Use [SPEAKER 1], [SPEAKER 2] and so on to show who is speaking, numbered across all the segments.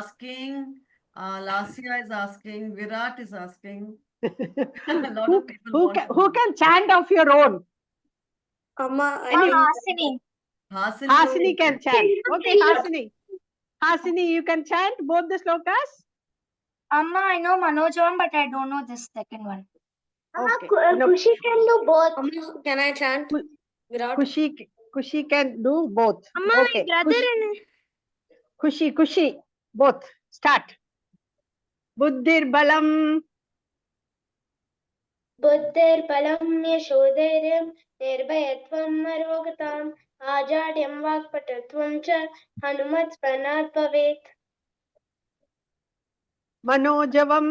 [SPEAKER 1] asking, uh, Lasia is asking, Virat is asking. A lot
[SPEAKER 2] Who-
[SPEAKER 1] of people
[SPEAKER 2] who
[SPEAKER 1] want
[SPEAKER 2] can,
[SPEAKER 1] to
[SPEAKER 2] who
[SPEAKER 1] know.
[SPEAKER 2] can chant of your own?
[SPEAKER 3] Amma, I
[SPEAKER 4] Or
[SPEAKER 3] can-
[SPEAKER 4] Hasini.
[SPEAKER 1] Hasini.
[SPEAKER 2] Hasini can chant.
[SPEAKER 4] you
[SPEAKER 2] Okay,
[SPEAKER 4] please?
[SPEAKER 2] Hasini. Hasini, you can chant both the slokas?
[SPEAKER 4] Amma, I know Manoj one, but I don't know this second one.
[SPEAKER 2] Okay. No,
[SPEAKER 5] Kushi can do both.
[SPEAKER 3] Amma, can I chant? Virat.
[SPEAKER 2] Kushi, Kushi can do both. Okay.
[SPEAKER 5] and.
[SPEAKER 2] Kushi, Kushi, both. Start. Buddhir balam,
[SPEAKER 5] ബുദ്ധേർ ബലം യശോധൈര്യം നിർഭയത്വം അരോഗതാം ആചാര്യം വാക്പടത്വം ച Hanumat സ്മരണാത് ഭവേത്
[SPEAKER 2] manojavam,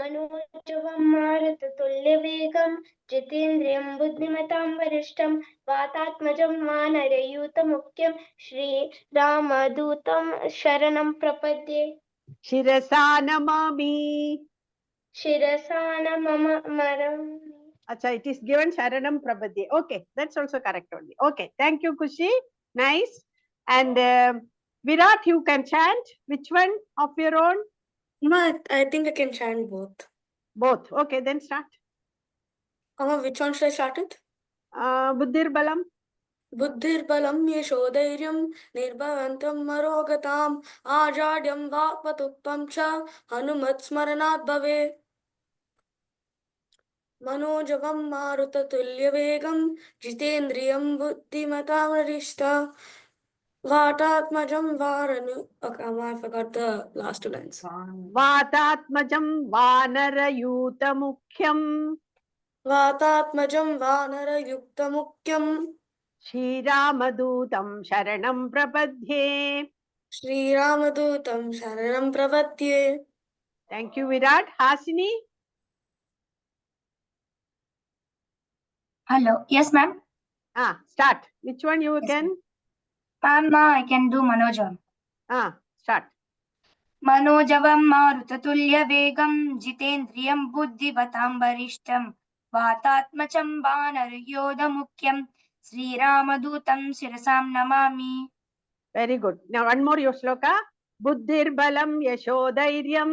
[SPEAKER 5] മനോജവം മാരുതതുല്യവേഗം ജിതേന്ദ്രിയം ബുദ്ധിമതാം വരിഷ്ഠം വാതാത്മജം വാനരയൂതമുഖ്യം ശ്രീരാമദൂതം ശരണം പ്രപദ്യേ
[SPEAKER 2] shirasa namami.
[SPEAKER 5] ശിരസാ നമ മരം
[SPEAKER 2] Acha, it is given Sharanam Prabhati. Okay, that's also correct only. Okay, thank you, Kushi. Nice. And um Virat, you can chant. Which one of your own?
[SPEAKER 3] Amma, I think I can chant both.
[SPEAKER 2] Both. Okay, then start.
[SPEAKER 3] Amma, which one should I start with?
[SPEAKER 2] Uh, Buddhir Balam.
[SPEAKER 3] బుద్ధిర్బలం యశోధైర్యం నిర్భవంతం మరోగతాం ఆజాడ్యం వాక్పతుత్వం చ హనుమత్స్మరణాత్ భవే మనోజవం మారుతతుల్యవేగం జితేంద్రియం బుద్ధిమతామరిష్ట వాటాత్మజం వారను I forgot the last lines
[SPEAKER 1] One,
[SPEAKER 2] Vatatmajam Vanarayuta Mukhyam.
[SPEAKER 3] వాతాత్మజం వానరయుక్త ముఖ్యం
[SPEAKER 2] Shiramadutam Sharanam Prabhadhye.
[SPEAKER 3] శ్రీరామదూతం శరణం ప్రపద్యే
[SPEAKER 2] Thank you, Virat. Hasini.
[SPEAKER 4] Hello. Yes, ma'am.
[SPEAKER 2] Ah, start. Which one you
[SPEAKER 4] Yes,
[SPEAKER 2] can?
[SPEAKER 4] Amma, I can do Manoj one.
[SPEAKER 2] Ah, start.
[SPEAKER 4] మనోజవం మారుతతుల్యవేగం జితేంద్రియం బుద్ధివతాం వరిష్టం వాతాత్మచం వానరయోధముఖ్యం శ్రీరామదూతం శిరసాం నమామి
[SPEAKER 2] Very good. Now one more your shloka. Buddhir balam yashodairyam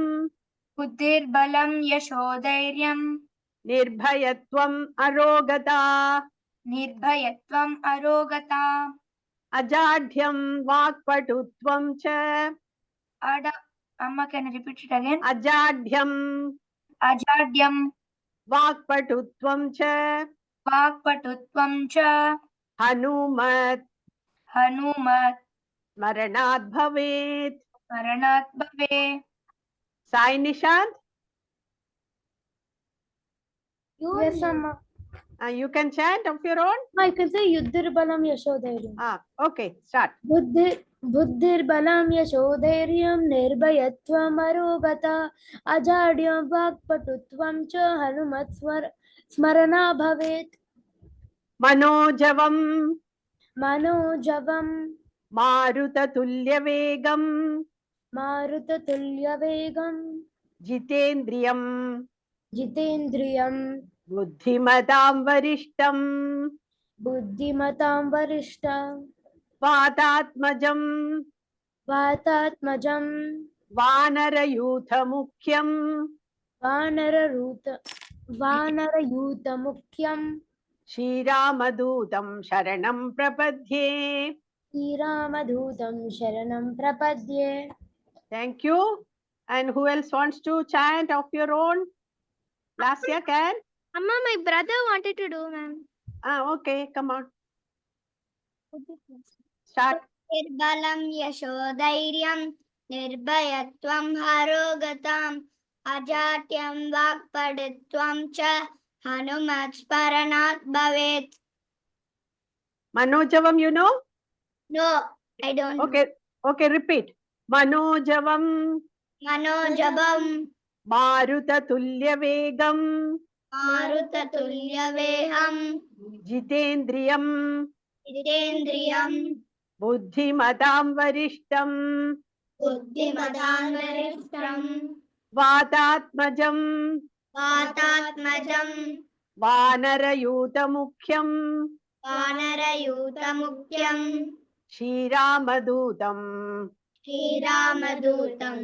[SPEAKER 4] బుద్ధిర్బలం యశోధైర్యం
[SPEAKER 2] nirbhayatvam arogata
[SPEAKER 4] నిర్భయత్వం అరోగత
[SPEAKER 2] ajadhyam vakpatutvam cha
[SPEAKER 4] అడ అమ్మ can repeat it again
[SPEAKER 2] ajadhyam
[SPEAKER 4] అజాడ్యం
[SPEAKER 2] vakpatutvam cha
[SPEAKER 4] వాక్పటుత్వం చ
[SPEAKER 2] hanumat
[SPEAKER 4] Hanumat
[SPEAKER 2] maranat bhavet.
[SPEAKER 4] మరణాత్ భవే
[SPEAKER 2] Sai Nishant,
[SPEAKER 5] Yes, Amma.
[SPEAKER 2] uh, you can chant of your own.
[SPEAKER 6] I can say युद्धिर्बलं यशोधैर्यं
[SPEAKER 2] Ah, okay, start.
[SPEAKER 6] बुद्धि बुद्धिर्बलं यशोधैर्यं निर्भयत्वम् अरोगता अजाड्यं वाक्पटुत्वं च हनुमत् स्मर स्मरणा भवेत्
[SPEAKER 2] Manojavam
[SPEAKER 6] मनोजवं
[SPEAKER 2] marutatulyavegam
[SPEAKER 6] मारुततुल्यवेगं
[SPEAKER 2] jitendriyam
[SPEAKER 6] जितेन्द्रियं
[SPEAKER 2] बुद्धिमतां वरिष्ठं
[SPEAKER 6] बुद्धिमतां वरिष्ठं
[SPEAKER 2] वातात्मजं
[SPEAKER 6] वातात्मजं
[SPEAKER 2] वानरयूथमुख्यं
[SPEAKER 6] वानररूत वानरयूतमुख्यं
[SPEAKER 2] श्रीरामदूतं शरणं प्रपद्ये
[SPEAKER 6] श्रीरामदूतं शरणं प्रपद्ये
[SPEAKER 2] thank you and who else wants to chant of your own Lasya can
[SPEAKER 5] Amma, my brother wanted to do, ma'am.
[SPEAKER 2] Okay come on start
[SPEAKER 5] నిర్బలం యశోధైర్యం నిర్భయత్వం హరోగతాం అజాట్యం వాక్పడుత్వం చ హనుమత్ స్మరణాత్ భవేత్
[SPEAKER 2] मनोजवम you know
[SPEAKER 5] Mm-hmm. No I don't
[SPEAKER 2] okay okay repeat मनोजवम
[SPEAKER 5] మనోజవం
[SPEAKER 2] मारुततुल्यवेगं
[SPEAKER 5] మారుతతుల్యవేహం
[SPEAKER 2] जितेन्द्रियं
[SPEAKER 5] జితేంద్రియం
[SPEAKER 2] बुद्धिमतां वरिष्ठं
[SPEAKER 5] బుద్ధిమదాన్వరిష్టం
[SPEAKER 2] वातात्मजं
[SPEAKER 5] వాతాత్మజం
[SPEAKER 2] वानरयूतमुख्यं
[SPEAKER 5] వానరయూతముఖ్యం
[SPEAKER 2] श्रीरामदूतं
[SPEAKER 5] శ్రీరామదూతం